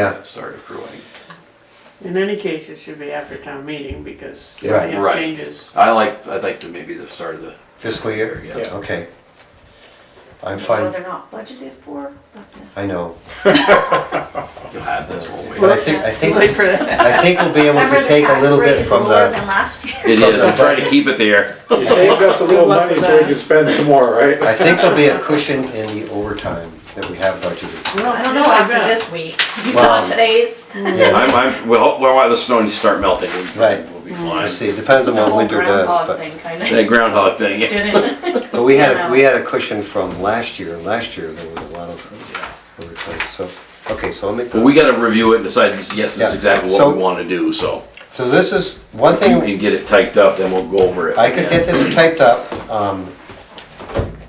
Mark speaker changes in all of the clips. Speaker 1: Yeah.
Speaker 2: start accruing.
Speaker 3: In any case, it should be after town meeting because we
Speaker 1: Yeah.
Speaker 3: have
Speaker 2: Right.
Speaker 3: changes.
Speaker 2: I like, I'd like to maybe the start of the,
Speaker 1: Fiscal year?
Speaker 2: Yeah.
Speaker 1: Okay. I'm
Speaker 4: Well,
Speaker 1: fine,
Speaker 4: they're not budgeted for, but uh,
Speaker 1: I know.
Speaker 2: you'll have this whole
Speaker 1: But I
Speaker 2: way.
Speaker 1: think, I think,
Speaker 3: Wait for that.
Speaker 1: I think we'll be able
Speaker 4: Remember
Speaker 1: to
Speaker 4: the
Speaker 1: take a
Speaker 4: tax
Speaker 1: little
Speaker 4: rate
Speaker 1: bit
Speaker 4: is
Speaker 1: from
Speaker 4: lower
Speaker 1: the,
Speaker 4: than last year.
Speaker 5: It is, I'm trying to keep it there.
Speaker 6: You saved us a little money so we can spend some more, right?
Speaker 1: I think there'll be a cushion in the overtime that we have budgeted.
Speaker 4: I don't know after this week. You saw
Speaker 1: Wow.
Speaker 4: today's,
Speaker 1: Yeah,
Speaker 5: I'm, I'm, well, well, while the snow needs to start melting, we-
Speaker 1: Right.
Speaker 5: we'll be
Speaker 1: I
Speaker 5: fine.
Speaker 1: see, depends on
Speaker 4: the
Speaker 1: what
Speaker 4: whole
Speaker 1: winter does,
Speaker 4: groundhog
Speaker 1: but.
Speaker 4: thing kind
Speaker 5: That
Speaker 4: of,
Speaker 5: groundhog thing, yeah.
Speaker 4: didn't it?
Speaker 1: But we had,
Speaker 4: Yeah.
Speaker 1: a we had a cushion from last year, and last year there was a lot of overtime, so, okay, so I'll make.
Speaker 5: But we gotta review it and decide, yes, this
Speaker 1: Yeah.
Speaker 5: is exactly
Speaker 1: So-
Speaker 5: what we wanna do, so.
Speaker 1: So this is, one
Speaker 5: If you
Speaker 1: thing,
Speaker 5: can get it typed up, then we'll go over it.
Speaker 1: I could get this typed up, um,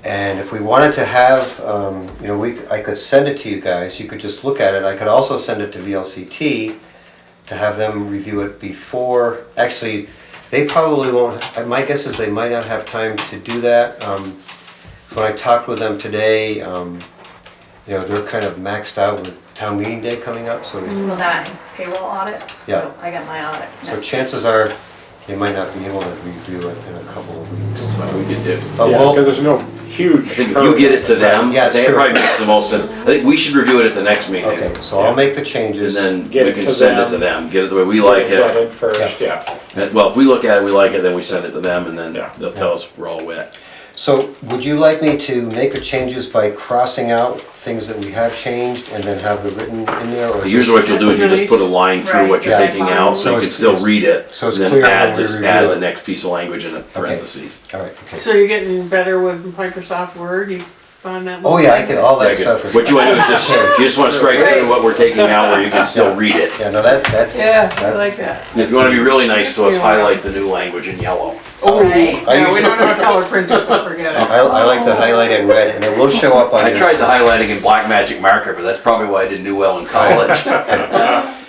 Speaker 1: and if we wanted to have, um, you know, we, I could send it to you guys, you could just look at it, I could also send it to VLCT to have them review it before, actually, they probably won't, my guess is they might not have time to do that. Um, When I talked with them today, um, you know, they're kind of maxed out with town meeting day coming up, so
Speaker 4: Well, that payroll audit,
Speaker 1: Yeah.
Speaker 4: so I got my audit
Speaker 1: So
Speaker 4: next.
Speaker 1: chances are, they might not be able to review it in a couple of weeks.
Speaker 5: That's what we could do.
Speaker 1: But
Speaker 6: Yeah,
Speaker 1: we'll-
Speaker 6: because there's no huge.
Speaker 5: Uh, I think if you get it to them,
Speaker 1: Yeah, it's
Speaker 5: that
Speaker 1: true.
Speaker 5: probably makes the most sense. I think we should review it at the next meeting.
Speaker 1: okay, so I'll make the changes.
Speaker 5: And then
Speaker 6: Get
Speaker 5: we
Speaker 6: it
Speaker 5: can
Speaker 6: to
Speaker 5: send it to
Speaker 6: them.
Speaker 5: them, get it the way we like it.
Speaker 6: Flooded First, yeah.
Speaker 5: And- Well, if we look at it, we like it, then we send it to them, and then
Speaker 6: Yeah.
Speaker 5: they'll tell us we're all wet.
Speaker 1: So would you like me to make the changes by crossing out things that we have changed and then have it written in there? or
Speaker 5: But
Speaker 1: just-
Speaker 5: Usually what you'll do is you just put a line through what you're
Speaker 1: Right.
Speaker 5: taking out,
Speaker 1: So
Speaker 5: so you can
Speaker 1: it's-
Speaker 5: still read it.
Speaker 1: so it's
Speaker 5: and then
Speaker 1: clear
Speaker 5: add-
Speaker 1: when we
Speaker 5: Just
Speaker 1: review
Speaker 5: add
Speaker 1: it.
Speaker 5: the next piece of language in the parentheses.
Speaker 1: All right, okay.
Speaker 3: So you're getting better with Microsoft Word, you find that?
Speaker 1: Oh,
Speaker 3: little
Speaker 1: yeah, I
Speaker 3: thing?
Speaker 1: could, all that
Speaker 5: Like,
Speaker 1: stuff. is-
Speaker 5: What you wanna do is just, you just wanna strike through what we're taking out where you can still read it.
Speaker 1: Yeah, no, that's, that's.
Speaker 3: Yeah, I
Speaker 1: that's-
Speaker 3: like that.
Speaker 5: And If you wanna be really nice to us, highlight the new language in yellow.
Speaker 1: Oh,
Speaker 4: Right.
Speaker 1: I
Speaker 3: No, we
Speaker 1: usually,
Speaker 3: don't have a color printer, so forget it.
Speaker 1: I, I like to highlight in red and it will show up on
Speaker 5: I
Speaker 1: your.
Speaker 5: tried the highlighting in black magic marker, but that's probably why I didn't do well in college.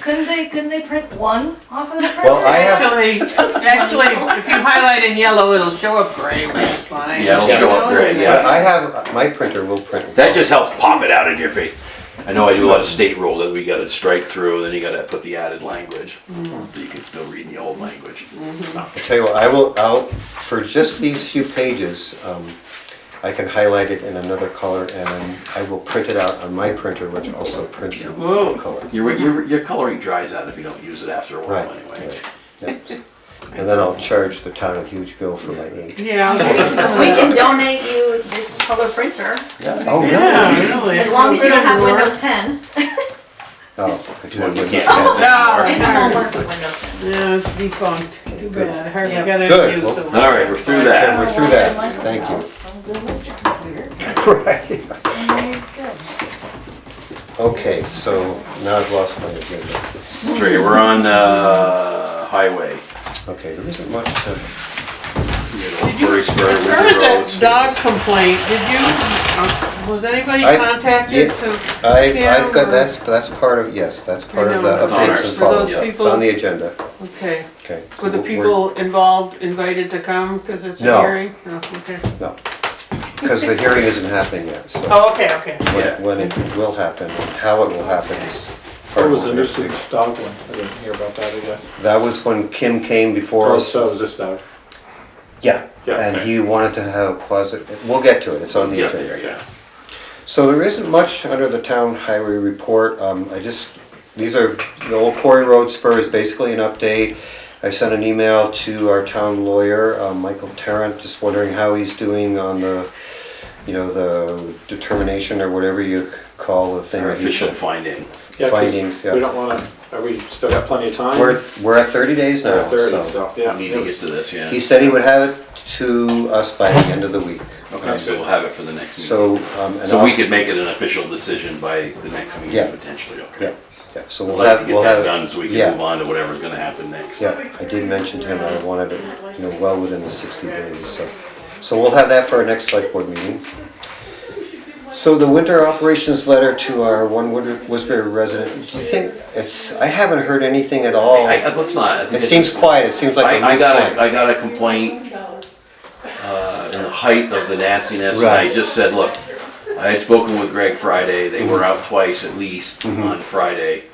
Speaker 4: Couldn't they, couldn't they print one off of the printer?
Speaker 1: Well, I have-
Speaker 3: Actually, actually, if you highlight in yellow, it'll show up gray, which is fine.
Speaker 5: Yeah, it'll show up gray, yeah.
Speaker 1: I have, my printer will print.
Speaker 5: That just helps pop it out in your face. I know I do a lot of state rules that we gotta strike through, then you gotta put the added language, so you can still read the old language.
Speaker 1: I tell you what, I will, I'll, for just these few pages, um, I can highlight it in another color and I will print it out on my printer, which also prints in
Speaker 3: Whoa.
Speaker 1: color.
Speaker 5: Your, your, your coloring dries out if you don't use it after a while
Speaker 1: Right,
Speaker 5: anyway.
Speaker 1: right. yeah. And then I'll charge the town a huge bill for my ink.
Speaker 3: Yeah.
Speaker 4: We can donate you this color printer,
Speaker 1: Oh, really?
Speaker 3: Yeah, really.
Speaker 4: as long as you don't have
Speaker 3: It'll work.
Speaker 4: Windows ten.
Speaker 1: Oh, I do
Speaker 5: Well,
Speaker 1: have
Speaker 5: you can't
Speaker 1: Windows 10.
Speaker 5: use it
Speaker 3: No.
Speaker 4: It
Speaker 5: anymore.
Speaker 4: won't work with Windows ten.
Speaker 3: No, it's defunct, too
Speaker 1: Good.
Speaker 3: bad, I hardly
Speaker 4: Yeah.
Speaker 3: got it.
Speaker 1: Good. Well,
Speaker 5: All right, we're through
Speaker 1: Okay,
Speaker 5: that.
Speaker 1: we're through that, thank you. Right. Okay, so now I've lost my agenda.
Speaker 5: Three, we're on, uh, highway.
Speaker 1: Okay, there isn't much to,
Speaker 5: Murray Spur,
Speaker 3: As
Speaker 5: Windsor
Speaker 3: far as that
Speaker 5: Roads.
Speaker 3: dog complaint, did you, uh, was anybody
Speaker 1: I-
Speaker 3: contacted
Speaker 1: yeah.
Speaker 3: to?
Speaker 1: I've, I've
Speaker 3: Yeah,
Speaker 1: got,
Speaker 3: or-
Speaker 1: that's, that's part of, yes, that's part of the
Speaker 3: know,
Speaker 5: on
Speaker 1: updates
Speaker 5: our-
Speaker 1: and
Speaker 3: For those
Speaker 1: follow-up. It's
Speaker 3: people,
Speaker 1: on the agenda,
Speaker 3: okay,
Speaker 1: okay. so
Speaker 3: were the
Speaker 1: we're-
Speaker 3: people involved invited to come, cause it's a
Speaker 1: No.
Speaker 3: hearing? No. okay.
Speaker 1: No, because the hearing isn't happening yet, so
Speaker 3: Oh, okay, okay.
Speaker 5: yeah.
Speaker 1: when, when it will happen, and how it will happen is. part
Speaker 6: What
Speaker 1: of
Speaker 6: was the
Speaker 1: what we're-
Speaker 6: nuisance dog one? I didn't hear about that, I guess.
Speaker 1: That was when Kim came before
Speaker 6: Or
Speaker 1: us,
Speaker 6: Oh, so was this dog.
Speaker 1: yeah,
Speaker 6: Yeah,
Speaker 1: and
Speaker 6: okay.
Speaker 1: he wanted to have a closet, we'll get to it, it's on the
Speaker 5: Yeah,
Speaker 1: agenda.
Speaker 5: there, yeah.
Speaker 1: So there isn't much under the town highway report. Um, I just, these are, the old quarry road spur is basically an update. I sent an email to our town lawyer, um, Michael Tarrant, just wondering how he's doing on the, you know, the determination or whatever you call the thing.
Speaker 5: Our
Speaker 1: that he's-
Speaker 5: official finding.
Speaker 6: Yeah, 'cause
Speaker 1: Findings, yeah.
Speaker 6: We don't wanna, are we still got plenty of time?
Speaker 1: We're, we're at thirty days
Speaker 6: We're
Speaker 1: now,
Speaker 6: at thirty,
Speaker 1: so.
Speaker 6: so, yeah.
Speaker 5: We need to get to this, yeah.
Speaker 1: He said he would have it to us by the end of the week.
Speaker 5: Okay, so we'll have it for the next meeting.
Speaker 1: So, um, and
Speaker 5: So we
Speaker 1: I'll,
Speaker 5: could make it an official decision by the next
Speaker 1: Yeah.
Speaker 5: meeting potentially,
Speaker 1: yeah,
Speaker 5: okay?
Speaker 1: yeah, so
Speaker 5: I'd
Speaker 1: we'll
Speaker 5: like to
Speaker 1: have,
Speaker 5: get
Speaker 1: we'll
Speaker 5: that
Speaker 1: have.
Speaker 5: done so we
Speaker 1: yeah.
Speaker 5: can move on to whatever's gonna happen next.
Speaker 1: Yeah, I did mention to him I wanted it, you know, well within the 60 days, so. So we'll have that for our next select board meeting. So the winter operations letter to our one Wood- Woodbury resident, do you think, it's, I haven't heard anything at all.
Speaker 5: I, I- let's not. I think
Speaker 1: It
Speaker 5: it's-
Speaker 1: seems quiet, it seems like a
Speaker 5: I, I
Speaker 1: moot
Speaker 5: got a,
Speaker 1: point.
Speaker 5: I got a complaint, uh, in the height of the nastiness, and I
Speaker 1: Right.
Speaker 5: just
Speaker 1: Mm-hmm.
Speaker 5: said, look, I had spoken with Greg Friday, they were out twice at least on Friday.